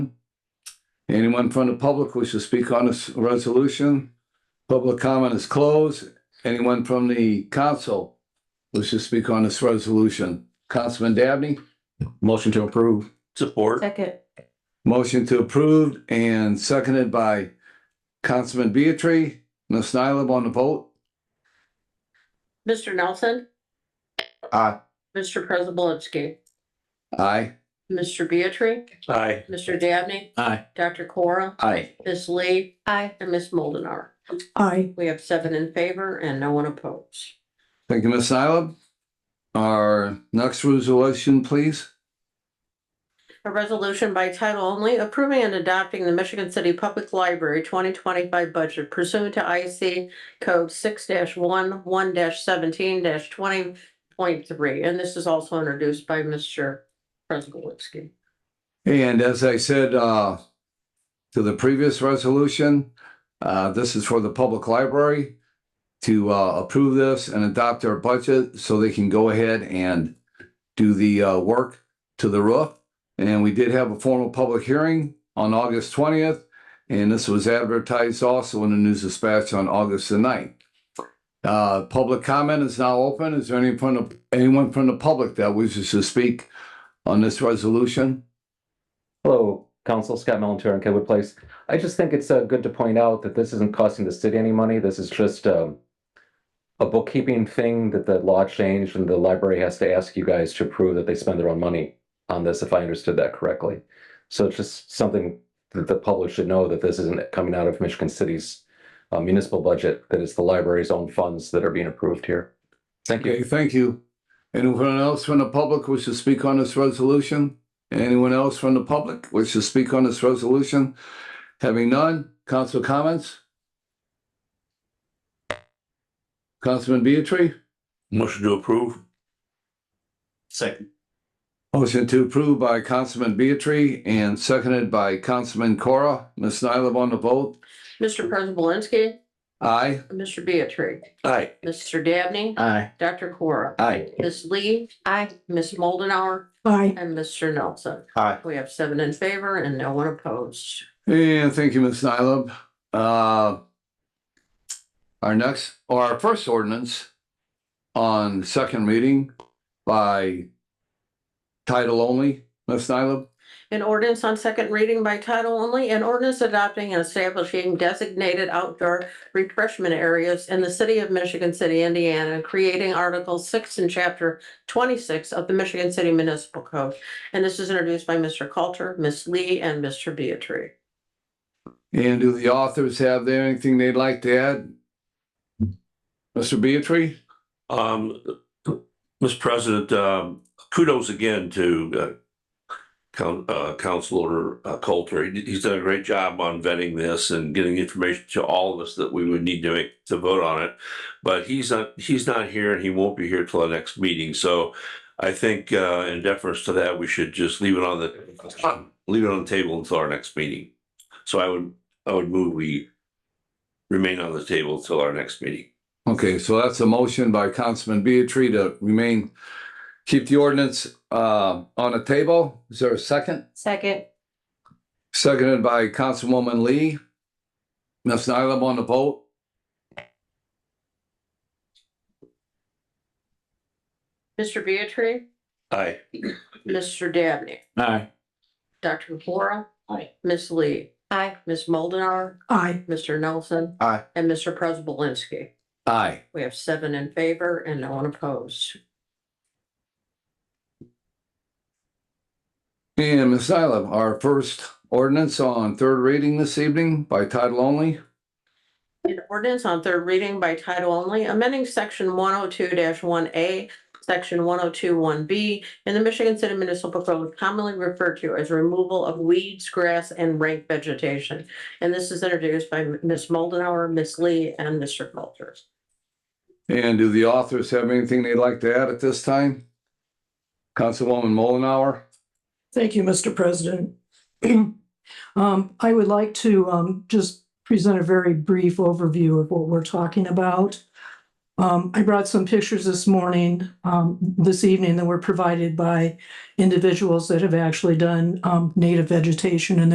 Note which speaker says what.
Speaker 1: Anyone from the public wish to speak on this resolution? Public comment is closed. Anyone from the council wish to speak on this resolution? Councilman Dabney?
Speaker 2: Motion to approve.
Speaker 3: Support.
Speaker 4: Second.
Speaker 1: Motion to approve and seconded by Councilman Beatry. Ms. Nylam on the vote?
Speaker 3: Mr. Nelson?
Speaker 2: Aye.
Speaker 3: Mr. Preselinski?
Speaker 1: Aye.
Speaker 3: Mr. Beatrice?
Speaker 2: Aye.
Speaker 3: Mr. Dabney?
Speaker 2: Aye.
Speaker 3: Dr. Cora?
Speaker 1: Aye.
Speaker 3: Ms. Lee?
Speaker 4: Aye.
Speaker 3: And Ms. Moldenar.
Speaker 4: Aye.
Speaker 3: We have seven in favor and no one opposed.
Speaker 1: Thank you, Ms. Nylam. Our next resolution, please.
Speaker 3: A resolution by title only approving and adopting the Michigan City Public Library twenty twenty-five budget pursuant to IC code six one, one seventeen twenty point three. And this is also introduced by Mr. Preselinski.
Speaker 1: And as I said, uh, to the previous resolution, uh, this is for the public library to, uh, approve this and adopt their budget so they can go ahead and do the, uh, work to the roof. And we did have a formal public hearing on August twentieth, and this was advertised also in the News Dispatch on August the 9th. Uh, public comment is now open. Is there any from the, anyone from the public that wishes to speak on this resolution?
Speaker 5: Hello, Council Scott Melantur on Kenwood Place. I just think it's uh, good to point out that this isn't costing the city any money. This is just um, a bookkeeping thing that the law changed and the library has to ask you guys to prove that they spend their own money on this, if I understood that correctly. So it's just something that the public should know that this isn't coming out of Michigan City's uh, municipal budget, that it's the library's own funds that are being approved here. Thank you.
Speaker 1: Okay, thank you. Anyone else from the public wish to speak on this resolution? Anyone else from the public wish to speak on this resolution? Having none, council comments? Councilman Beatry,
Speaker 2: Motion to approve. Second.
Speaker 1: motion to approve by Councilman Beatry and seconded by Councilman Cora. Ms. Nylam on the vote.
Speaker 3: Mr. Preselinski?
Speaker 1: Aye.
Speaker 3: Mr. Beatrice?
Speaker 2: Aye.
Speaker 3: Mr. Dabney?
Speaker 2: Aye.
Speaker 3: Dr. Cora?
Speaker 1: Aye.
Speaker 3: Ms. Lee?
Speaker 4: Aye.
Speaker 3: Ms. Moldenauer,
Speaker 4: Aye.
Speaker 3: And Mr. Nelson.
Speaker 2: Aye.
Speaker 3: We have seven in favor and no one opposed.
Speaker 1: And thank you, Ms. Nylam. Uh, Our next, or our first ordinance on second reading by title only, Ms. Nylam.
Speaker 3: An ordinance on second reading by title only, an ordinance adopting and establishing designated outdoor refreshment areas in the city of Michigan City, Indiana, creating Article six and Chapter twenty-six of the Michigan City Municipal Code. And this is introduced by Mr. Coulter, Ms. Lee, and Mr. Beatrice.
Speaker 1: And do the authors have there anything they'd like to add? Mr. Beatry?
Speaker 6: Um, Mr. President, um, kudos again to, uh, Coun- uh, Councilor uh, Coulter. He- He's done a great job on vetting this and getting information to all of us that we would need to make, to vote on it. But he's not, he's not here and he won't be here till the next meeting. So I think, uh, in deference to that, we should just leave it on the, leave it on the table until our next meeting. So I would, I would move we remain on the table till our next meeting.
Speaker 1: Okay, so that's a motion by Councilman Beatry to remain, keep the ordinance uh, on the table. Is there a second?
Speaker 4: Second.
Speaker 1: Seconded by Councilwoman Lee. Ms. Nylam on the vote.
Speaker 3: Mr. Beatrice?
Speaker 6: Aye.
Speaker 3: Mr. Dabney?
Speaker 2: Aye.
Speaker 3: Dr. Flora?
Speaker 2: Aye.
Speaker 3: Ms. Lee?
Speaker 4: Aye.
Speaker 3: Ms. Moldenar?
Speaker 4: Aye.
Speaker 3: Mr. Nelson?
Speaker 2: Aye.
Speaker 3: And Mr. Prespolinski.
Speaker 1: Aye.
Speaker 3: We have seven in favor and no one opposed.
Speaker 1: And Ms. Nylam, our first ordinance on third reading this evening by title only.
Speaker 3: An ordinance on third reading by title only, amending section one oh two one A, section one oh two one B in the Michigan City Municipal Code commonly referred to as removal of weeds, grass, and rank vegetation. And this is introduced by Ms. Moldenauer, Ms. Lee, and Mr. Coulter.
Speaker 1: And do the authors have anything they'd like to add at this time? Councilwoman Mullenhour?
Speaker 7: Thank you, Mr. President. Um, I would like to, um, just present a very brief overview of what we're talking about. Um, I brought some pictures this morning, um, this evening that were provided by individuals that have actually done, um, native vegetation in